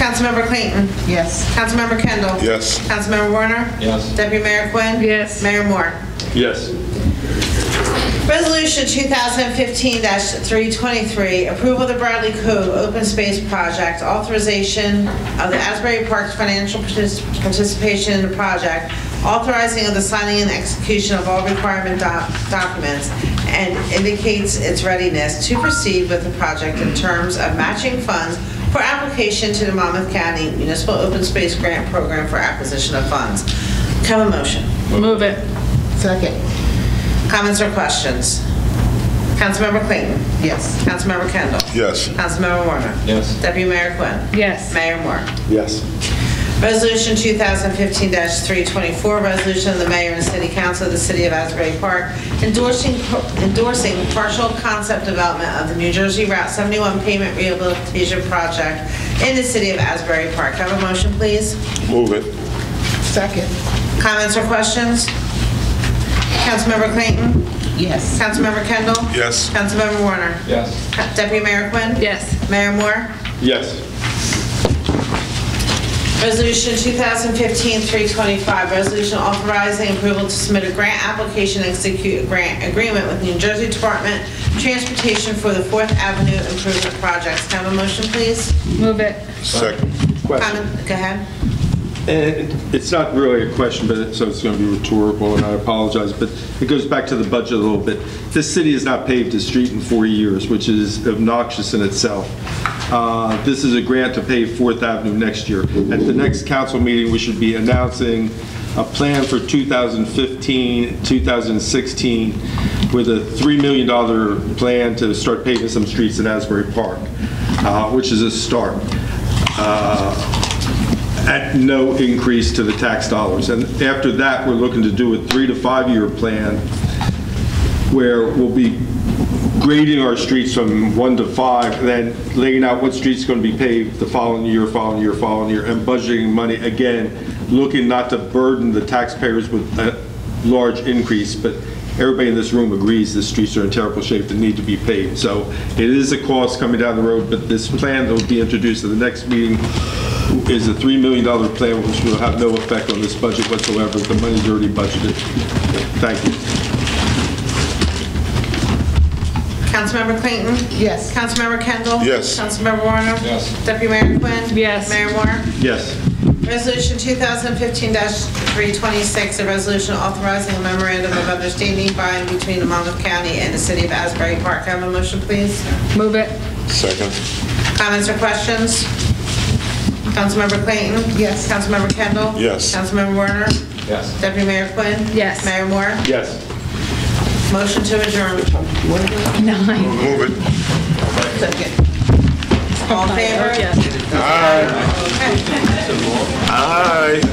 Councilmember Clayton. Yes. Councilmember Kendall. Yes. Councilmember Warner. Yes. Deputy Mayor Quinn. Yes. Mayor Moore. Yes. Resolution 2015-323, approval of the Bradley Cove Open Space Project, authorization of the Asbury Parks financial partic- participation in the project, authorizing of the signing and execution of all requirement doc- documents, and indicates its readiness to proceed with the project in terms of matching funds for application to the Monmouth County Municipal Open Space Grant Program for acquisition of funds. Can I Have a motion. Move it. Second. Comments or questions? Councilmember Clayton. Yes. Councilmember Kendall. Yes. Councilmember Warner. Yes. Deputy Mayor Quinn. Yes. Mayor Moore. Yes. Resolution 2015-324, resolution of the mayor and city council of the city of Asbury Park endorsing endorsing partial concept development of the New Jersey Route 71 payment rehabilitation project in the city of Asbury Park. Have a motion, please? Move it. Second. Comments or questions? Councilmember Clayton. Yes. Councilmember Kendall. Yes. Councilmember Warner. Yes. Deputy Mayor Quinn? Yes. Mayor Moore? Yes. Resolution 2015-325, resolution authorizing approval to submit a grant application and execute a grant agreement with New Jersey Department of Transportation for the Fourth Avenue Improvement Projects. Can I have a motion, please? Move it. Second. Question. Comment, go ahead. And It's not really a question, but, it- so it's going to be rhetorical, and I apologize, but it goes back to the budget a little bit. This city has not paved a street in four years, which is obnoxious in itself. Uh, This is a grant to pave Fourth Avenue next year. At the next council meeting, we should be announcing a plan for 2015, 2016, with a $3 million plan to start paving some streets in Asbury Park, uh, which is a start. Uh, at no increase to the tax dollars. And after that, we're looking to do a three to five-year plan where we'll be grading our streets from one to five, and then laying out what street's going to be paved the following year, following year, following year, and budgeting money, again, looking not to burden the taxpayers with uh, a large increase, but everybody in this room agrees the streets are in terrible shape and need to be paved. So it is a cost coming down the road, but this plan that will be introduced at the next meeting is a $3 million plan, which will have no effect on this budget whatsoever. The money's already budgeted. Thank you. Councilmember Clayton? Yes. Councilmember Kendall? Yes. Councilmember Warner? Yes. Deputy Mayor Quinn? Yes. Mayor Moore? Yes. Resolution 2015-326, a resolution authorizing a memorandum of understanding by and between the Monmouth County and the City of Asbury Park. Can I Have a motion, please? Move it. Second. Comments or questions? Councilmember Clayton? Yes. Councilmember Kendall? Yes. Councilmember Warner? Yes. Deputy Mayor Quinn? Yes. Mayor Moore? Yes. Motion to adjourn. Nine. Move it. Second. All in favor? Yes. Aye.